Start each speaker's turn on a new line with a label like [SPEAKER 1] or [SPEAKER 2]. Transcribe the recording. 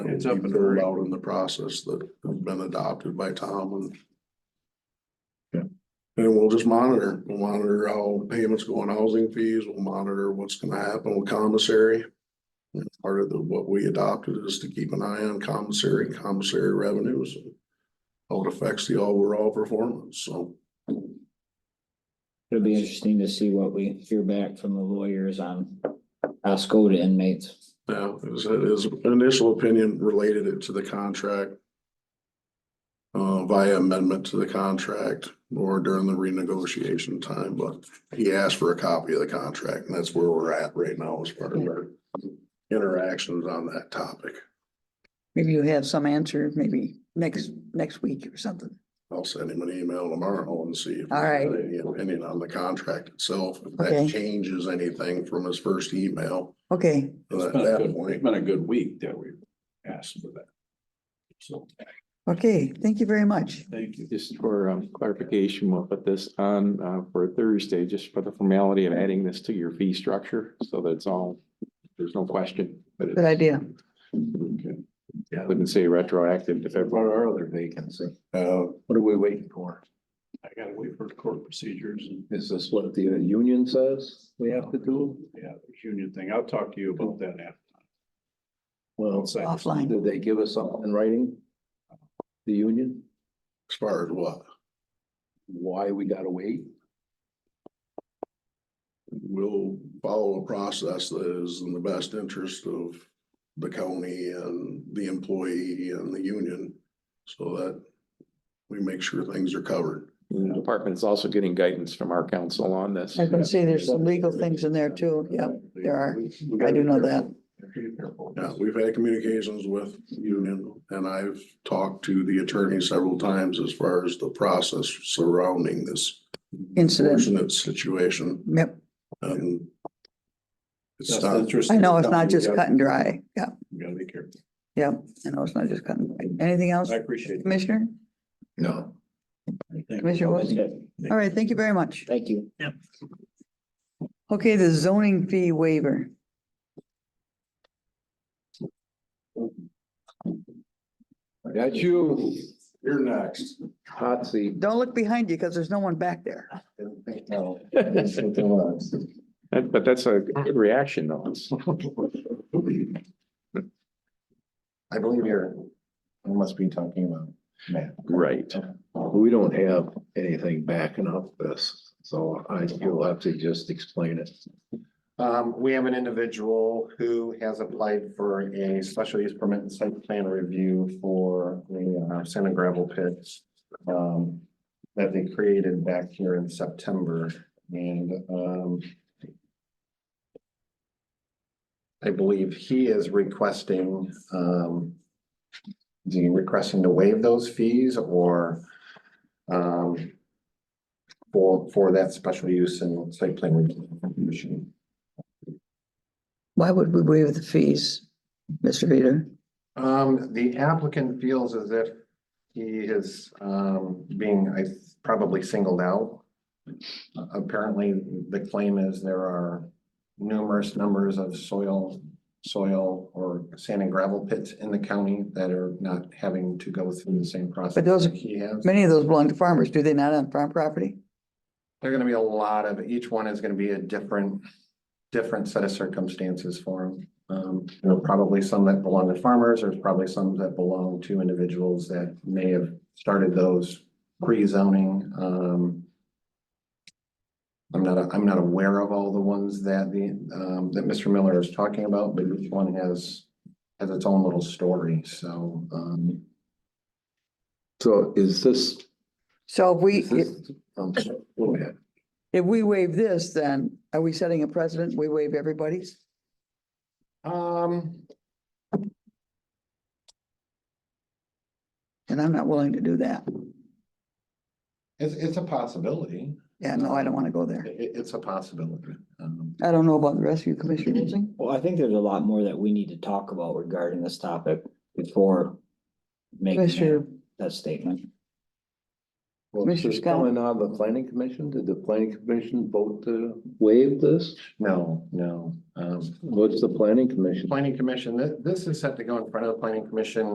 [SPEAKER 1] It's up and
[SPEAKER 2] rolled
[SPEAKER 1] running.
[SPEAKER 2] out in the process that has been adopted by Tom and.
[SPEAKER 1] Yeah.
[SPEAKER 2] And we'll just monitor, we'll monitor how payments go on housing fees, we'll monitor what's gonna happen with commissary. And Part of the, what we adopted is to keep an eye on commissary, commissary revenues. and How it affects the overall performance, so.
[SPEAKER 3] It'll be interesting to see what we hear back from the lawyers on Osco to inmates.
[SPEAKER 2] Yeah, it was, it is initial opinion related it to the contract. Uh, via amendment to the contract or during the renegotiation time, but he asked for a copy of the contract and that's where we're at right now as far as our. Interactions on that topic.
[SPEAKER 4] Maybe you have some answer, maybe next, next week or something.
[SPEAKER 2] I'll send him an email tomorrow and see. if he
[SPEAKER 4] All right.
[SPEAKER 2] has Any opinion on the contract itself, if
[SPEAKER 4] Okay.
[SPEAKER 2] that changes anything from his first email.
[SPEAKER 4] Okay,
[SPEAKER 1] It's
[SPEAKER 2] At
[SPEAKER 1] been a
[SPEAKER 2] that
[SPEAKER 1] good- It's
[SPEAKER 2] point,
[SPEAKER 1] been a good week that we asked for that. So,
[SPEAKER 4] okay, thank you very much.
[SPEAKER 1] thank you.
[SPEAKER 5] Just for um, clarification, we'll put this on uh, for Thursday, just for the formality of adding this to your fee structure, so that it's all, there's no question. But
[SPEAKER 4] Good idea.
[SPEAKER 1] Yeah,
[SPEAKER 5] I wouldn't say retroactive to
[SPEAKER 1] what
[SPEAKER 5] February.
[SPEAKER 1] are other vacancy?
[SPEAKER 2] uh,
[SPEAKER 1] What are we waiting for? I gotta wait for the court procedures and,
[SPEAKER 6] Is this what the union says we have to do?
[SPEAKER 1] yeah, the union thing. I'll talk to you about that after.
[SPEAKER 6] Well,
[SPEAKER 1] outside.
[SPEAKER 4] Offline.
[SPEAKER 6] did they give us something in writing? The union,
[SPEAKER 2] as far as what,
[SPEAKER 6] why we gotta wait?
[SPEAKER 2] we'll follow a process that is in the best interest of the county and the employee and the union, so that we make sure things are covered.
[SPEAKER 5] The department is also getting guidance from our council on this.
[SPEAKER 4] I was gonna say, there's some legal things in there too, yep. there are.
[SPEAKER 1] We
[SPEAKER 4] I
[SPEAKER 1] gotta
[SPEAKER 4] do
[SPEAKER 1] be
[SPEAKER 4] know
[SPEAKER 1] careful. We gotta be careful.
[SPEAKER 2] Yeah, we've had communications with union, and I've talked to the attorney several times as far as the process surrounding this
[SPEAKER 4] Incident,
[SPEAKER 2] fortunate situation,
[SPEAKER 4] yep,
[SPEAKER 2] and it's
[SPEAKER 1] That's
[SPEAKER 2] not,
[SPEAKER 1] interesting.
[SPEAKER 4] I know it's not just
[SPEAKER 1] We
[SPEAKER 4] cut
[SPEAKER 1] gotta-
[SPEAKER 4] and dry, yeah,
[SPEAKER 1] we gotta be careful.
[SPEAKER 4] yep, I know it's not just cut and dry. Anything else,
[SPEAKER 1] I appreciate it.
[SPEAKER 4] Commissioner?
[SPEAKER 6] No.
[SPEAKER 4] Commissioner Wilson? All right, thank you very much.
[SPEAKER 3] Thank you.
[SPEAKER 4] Okay, the zoning fee waiver.
[SPEAKER 6] That's you,
[SPEAKER 2] you're next.
[SPEAKER 6] hot seat.
[SPEAKER 4] Don't look behind you because there's no one back there.
[SPEAKER 6] No. that's what it was.
[SPEAKER 5] That- But that's a good reaction, though. It's-
[SPEAKER 7] I believe you're, you must be talking about Matt.
[SPEAKER 6] Right, we don't have anything backing up this, so I, you'll have to just explain it.
[SPEAKER 7] Um, we have an individual who has applied for a special use permit and site plan review for the uh, sand and gravel pit. Um, that they created back here in September and, um. I believe he is requesting, um. Is he requesting to waive those fees or, um. For, for that special use and site plan review? commission?
[SPEAKER 4] Why would we waive the fees, Mr. Reader?
[SPEAKER 7] Um, the applicant feels as if he is, um, being, I probably singled out. Apparently, the claim is there are numerous numbers of soil, soil or sand and gravel pits in the county that are not having to go through the same process.
[SPEAKER 4] But those-
[SPEAKER 7] that He has.
[SPEAKER 4] Many of those belong to farmers, do they not on farm property?
[SPEAKER 7] There are gonna be a lot of, each one is gonna be a different, different set of circumstances for them. Um, there are probably some that belong to farmers, there's probably some that belong to individuals that may have started those pre-zoning, um. I'm not, I'm not aware of all the ones that the, um, that Mr. Miller is talking about, but each one has, has its own little story, so, um.
[SPEAKER 6] So is this,
[SPEAKER 4] So if we,
[SPEAKER 6] is this, um, go ahead.
[SPEAKER 4] if we waive this, then are we setting a precedent? We waive everybody's?
[SPEAKER 7] Um,
[SPEAKER 4] And I'm not willing to do that.
[SPEAKER 7] it's, it's a possibility,
[SPEAKER 4] Yeah, no, I don't want to go there.
[SPEAKER 7] It- it's a possibility, um.
[SPEAKER 4] I don't know about the rest of you, Commissioner Wilson.
[SPEAKER 3] Well, I think there's a lot more that we need to talk about regarding this topic before making
[SPEAKER 4] Commissioner,
[SPEAKER 3] that- that statement.
[SPEAKER 6] Well,
[SPEAKER 4] Mr.
[SPEAKER 6] this is
[SPEAKER 4] Scott?
[SPEAKER 6] Coming out of the planning commission, did the planning commission vote to waive this?
[SPEAKER 7] No, no. Um,
[SPEAKER 6] What's the planning commission?
[SPEAKER 7] planning commission, thi- this is set to go in front of the planning commission